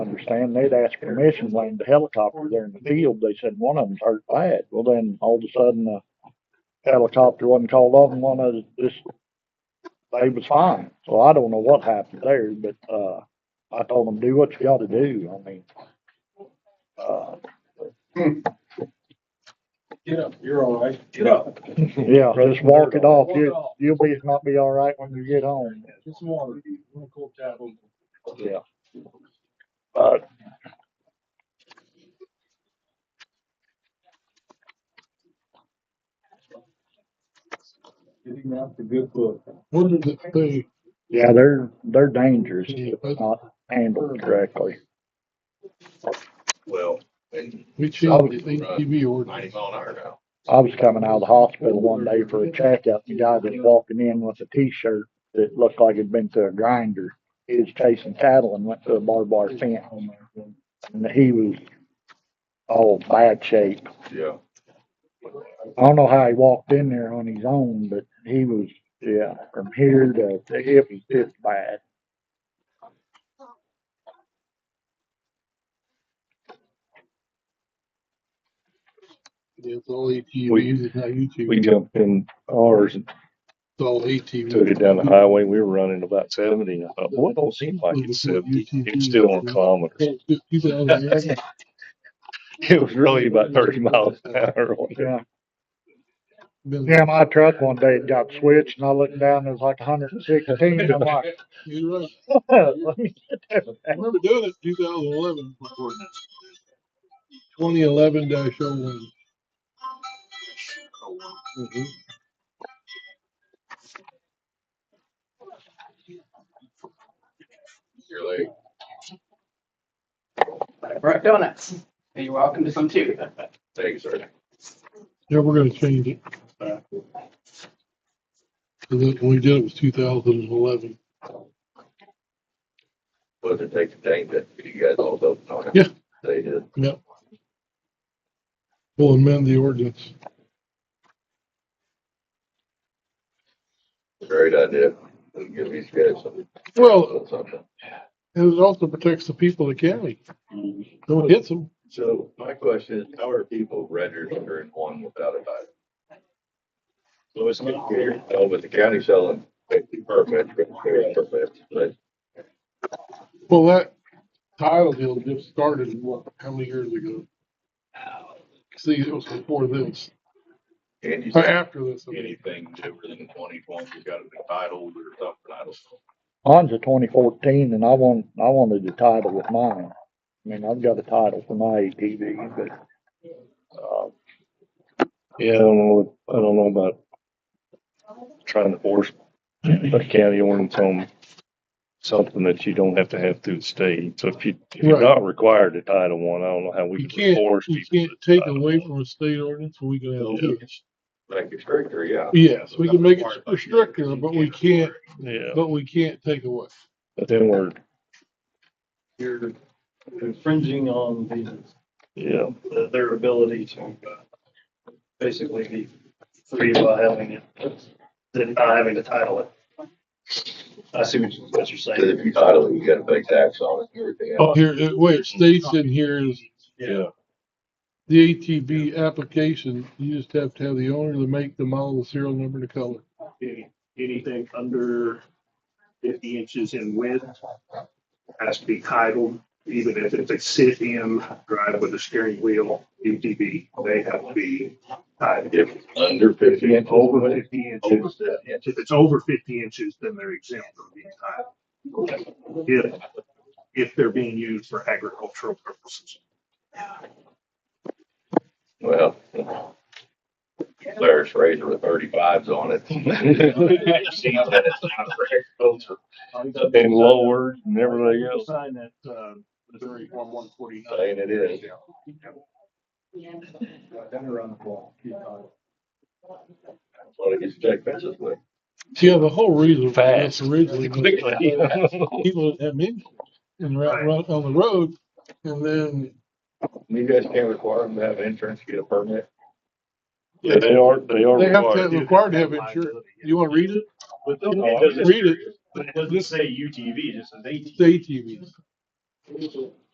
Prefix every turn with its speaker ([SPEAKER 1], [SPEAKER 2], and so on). [SPEAKER 1] understand, they'd asked permission, land the helicopter there in the field, they said one of them's hurt bad, well then, all of a sudden, the helicopter wasn't called off, and one of the, this, they was fine, so I don't know what happened there, but, uh, I told them, do what you gotta do, I mean, uh,
[SPEAKER 2] Get up, you're all right.
[SPEAKER 3] Get up.
[SPEAKER 1] yeah, just walk it off,
[SPEAKER 2] Walk it
[SPEAKER 1] you,
[SPEAKER 2] off.
[SPEAKER 1] you'll be, not be all right when you get home.
[SPEAKER 2] Get some water. Run a cold tap on.
[SPEAKER 1] Yeah. But.
[SPEAKER 2] Getting out the good book.
[SPEAKER 4] What did it do?
[SPEAKER 1] Yeah, they're, they're dangerous if not handled correctly.
[SPEAKER 3] Well, and
[SPEAKER 4] We changed the ATV
[SPEAKER 3] ninety
[SPEAKER 4] ordinance.
[SPEAKER 3] mile an hour now.
[SPEAKER 1] I was coming out of the hospital one day for a checkup, the guy was walking in with a T-shirt that looked like it'd been to a grinder. He was chasing cattle and went to a barbed wire fence. And he was all bad shape.
[SPEAKER 3] Yeah.
[SPEAKER 1] I don't know how he walked in there on his own, but he was, yeah, from here to, to it was just bad.
[SPEAKER 4] It's all
[SPEAKER 5] We-
[SPEAKER 4] ATVs, it's not ATVs.
[SPEAKER 5] We jumped in ours and
[SPEAKER 4] It's all
[SPEAKER 5] took
[SPEAKER 4] ATVs.
[SPEAKER 5] it down the highway. We were running about seventy and I thought, well, it don't seem like it's seventy. It was still on kilometers.
[SPEAKER 4] People on the
[SPEAKER 5] It was really about thirty miles an hour. on it.
[SPEAKER 1] Yeah.
[SPEAKER 4] ag-
[SPEAKER 1] Yeah, my truck one day it got switched and I looked down, it was like hundred and sixteen. I'm like,
[SPEAKER 4] You're right.
[SPEAKER 1] let me get that
[SPEAKER 4] I
[SPEAKER 1] back.
[SPEAKER 4] remember doing it in 2011. Twenty eleven dash oh one.
[SPEAKER 3] You're like,
[SPEAKER 6] Brooke Donuts. And you're welcome to some too.
[SPEAKER 3] thanks, sir.
[SPEAKER 4] Yeah, we're gonna change it. Cause it- when we did it was two thousand and eleven.
[SPEAKER 3] Wasn't it take the tank that you guys all don't know?
[SPEAKER 4] Yeah.
[SPEAKER 3] They did.
[SPEAKER 4] We'll amend the ordinance.
[SPEAKER 3] Great idea. Give these guys some,
[SPEAKER 4] Well,
[SPEAKER 3] something.
[SPEAKER 4] and it also protects the people of the county. No it hits them.
[SPEAKER 3] So my question is, how are people registered in one without a title? So it's not here, oh, but the county selling fifty permits, fifty permits, but
[SPEAKER 4] Well, that tile deal just started, what, how many years ago? See, it was before this,
[SPEAKER 3] and you
[SPEAKER 4] or
[SPEAKER 3] said
[SPEAKER 4] after this. I mean.
[SPEAKER 3] anything newer than twenty twenty, you gotta be titled or something, I don't know.
[SPEAKER 1] Mine's a twenty fourteen and I want, I wanted the title with mine. I mean, I've got a title for my ATV, but, uh,
[SPEAKER 5] Yeah, I don't know, I don't know about trying to force a county ordinance on something that you don't have to have through the state. So if you, if you're
[SPEAKER 4] Right.
[SPEAKER 5] not required to title one, I don't know how we
[SPEAKER 4] You
[SPEAKER 5] can
[SPEAKER 4] can't,
[SPEAKER 5] force
[SPEAKER 4] you
[SPEAKER 5] people.
[SPEAKER 4] can't
[SPEAKER 5] to
[SPEAKER 4] take
[SPEAKER 5] Title
[SPEAKER 4] away
[SPEAKER 5] I.
[SPEAKER 4] from a state ordinance, we can have two.
[SPEAKER 3] Like it's stricter, yeah.
[SPEAKER 4] Yes, we can make it restrictive, but we can't,
[SPEAKER 5] Yeah,
[SPEAKER 4] but we can't take away.
[SPEAKER 5] but then we're,
[SPEAKER 7] you're infringing on the,
[SPEAKER 5] yeah,
[SPEAKER 7] their ability to uh, basically be free by having it, than not having to title it. I see what you- what you're
[SPEAKER 3] Cause if
[SPEAKER 7] saying.
[SPEAKER 3] you title it, you gotta pay tax on it and everything else.
[SPEAKER 4] Oh, here, uh, where it states in here is
[SPEAKER 5] yeah.
[SPEAKER 4] the ATV application, you just have to have the owner, the make, the model, the serial number, and the color.
[SPEAKER 7] Any- Anything under fifty inches in width has to be titled, even if it's a sit-in drive with a steering wheel, UTV, they have to be titled.
[SPEAKER 3] If under fifty inches.
[SPEAKER 7] Over fifty
[SPEAKER 3] Over
[SPEAKER 7] inches,
[SPEAKER 3] seven inches.
[SPEAKER 7] If it's over fifty inches, then they're exempt from being titled. If, if they're being used for agricultural purposes.
[SPEAKER 3] Well, Larry's razor with thirty-fives on it. See that it's not for agriculture.
[SPEAKER 5] And lowered and everything else.
[SPEAKER 7] Sign that, uh, Missouri one one forty-nine.
[SPEAKER 3] Saying it is. That's what it gets checked fences with.
[SPEAKER 4] Yeah, the whole reason for this
[SPEAKER 5] Fast.
[SPEAKER 4] originally. was-
[SPEAKER 5] Quickly.
[SPEAKER 4] People that have been and ra- ra- on the road, and then
[SPEAKER 3] You guys can't require them to have insurance, to get a permit.
[SPEAKER 5] Yeah, they are, they are
[SPEAKER 4] they have to,
[SPEAKER 5] required.
[SPEAKER 4] required to have insurance. You wanna read it?
[SPEAKER 7] But
[SPEAKER 5] No,
[SPEAKER 4] Read it,
[SPEAKER 7] it doesn't say UTV, it just says ATV.
[SPEAKER 4] the ATVs.